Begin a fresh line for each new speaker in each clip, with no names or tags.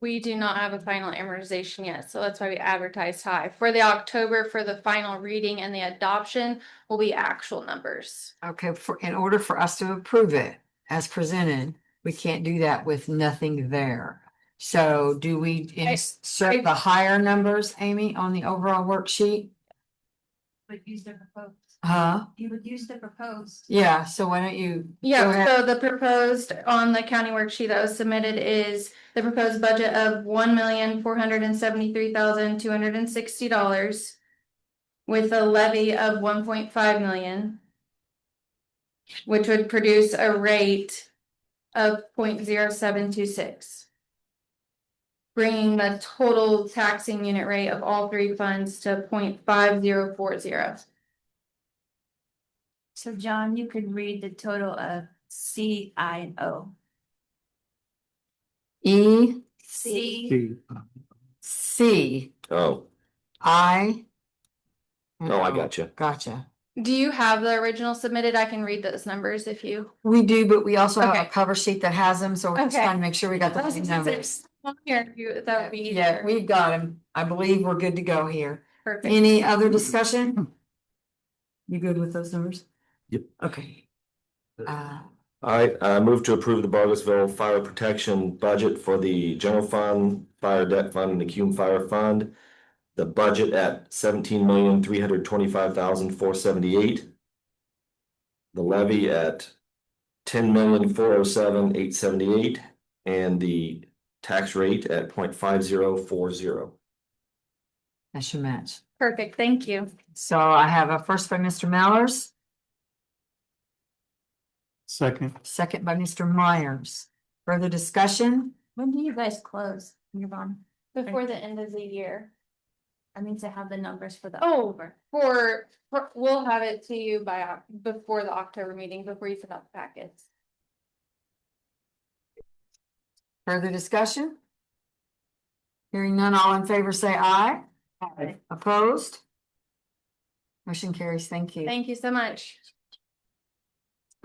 We do not have a final amortization yet, so that's why we advertise high. For the October, for the final reading and the adoption will be actual numbers.
Okay, for, in order for us to approve it as presented, we can't do that with nothing there. So do we
I-
insert the higher numbers, Amy, on the overall worksheet?
Would use the proposed,
Huh?
you would use the proposed.
Yeah, so why don't you? go ahead.
Yeah, so the proposed on the county worksheet that was submitted is the proposed budget of one million, four hundred and seventy-three thousand, two hundred and sixty dollars with a levy of one point five million, which would produce a rate of 0.0726, bringing the total taxing unit rate of all three funds to 0.5040.
So John, you could read the total of C, I, and O.
E,
C,
C,
Oh,
I.
oh, I got you.
Gotcha.
Do you have the original submitted? I can read those numbers if you.
We do, but we also have a
Okay.
cover sheet that has them, so we're just
Okay.
trying to make sure we got the
That
right numbers.
would be
Yeah,
easier.
we've got them. I believe we're good to go here.
Perfect.
Any other discussion? You good with those numbers?
Yep.
Okay. Uh,
All right, I move to approve the Bartlesville Fire Protection Budget for the General Fund, Fire Debt Fund, and the Cume Fire Fund. The budget at seventeen million, three hundred twenty-five thousand, four seventy-eight. The levy at ten million, four oh seven, eight seventy-eight, and the tax rate at point five zero four zero.
that should match.
Perfect, thank you.
So I have a first by Mr. Mallers,
Second.
second by Mr. Myers. Further discussion?
when do you guys close, Yvonne?
Before the end of the year.
I mean, to have the numbers for the.
Oh.
October.
For, for- we'll have it to you by, Oc- before the October meeting, before you send out the packets.
Further discussion? Hearing none, all in favor say aye.
Aye.
Opposed? Motion carries, thank you.
Thank you so much.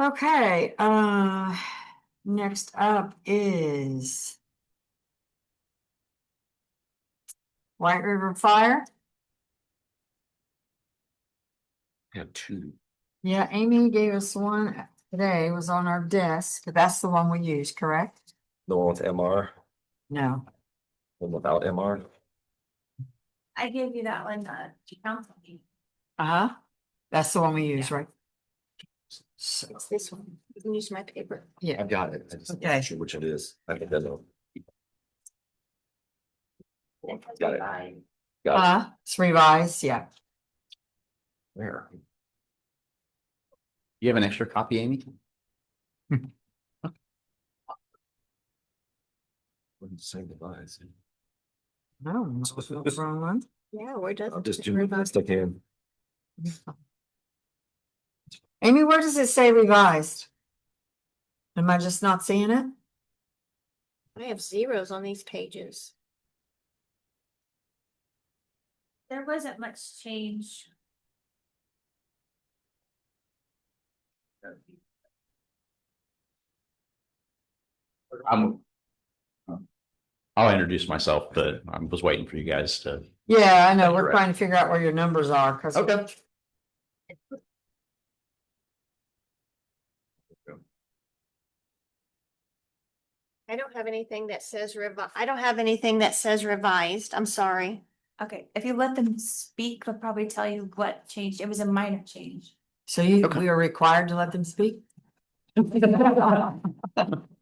Okay, uh, next up is White River Fire.
Have two.
Yeah, Amy gave us one today, it was on our desk. That's the one we used, correct?
The one with MR,
No.
one without MR.
I gave you that one, uh, council meeting.
Uh-huh. That's the one we use, right? So,
This one, you can use my paper.
yeah,
I've got it. I just
Okay.
not sure which it is. I think that's all. Got it. Got it.
uh, it's revised, yeah.
Where?
You have an extra copy, Amy?
Wouldn't say device.
No, wrong one.
Yeah, where does?
I'll just do the best I can.
Amy, where does it say revised? Am I just not seeing it?
I have zeros on these pages. There wasn't much change.
I'm. I'll introduce myself, but I was waiting for you guys to.
Yeah, I know. We're
Correct.
trying to figure out where your numbers are because.
Okay.
I don't have anything that says revi- I don't have anything that says revised, I'm sorry.
Okay, if you let them speak, they'll probably tell you what changed. It was a minor change.
So you,
Okay.
we are required to let them speak?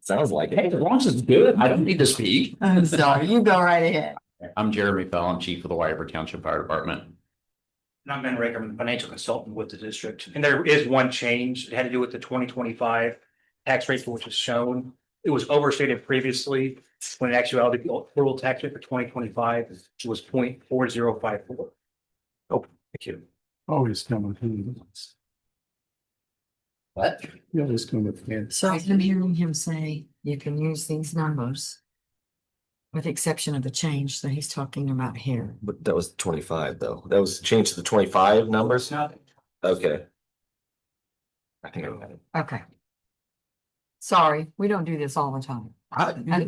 Sounds like
Hey,
it.
as long as it's good, I don't need to speak.
I'm sorry, you go right ahead.
I'm Jeremy Fell, I'm chief of the White River Township Fire Department.
And I'm Ben Raker, I'm the financial consultant with the district, and there is one change, it had to do with the twenty twenty-five tax rate, which is shown. It was overstated previously, when in actuality, the total tax rate for twenty twenty-five was 0.4054. Oh, thank you.
Always come with hands.
What?
You always come with hands.
So I'm hearing him say you can use these numbers. With the exception of the change that he's talking about here.
But that was twenty-five though. That was changed to the twenty-five numbers?
Nothing.
Okay. I think I got it.
Okay. Sorry, we don't do this all the time.
I-
And-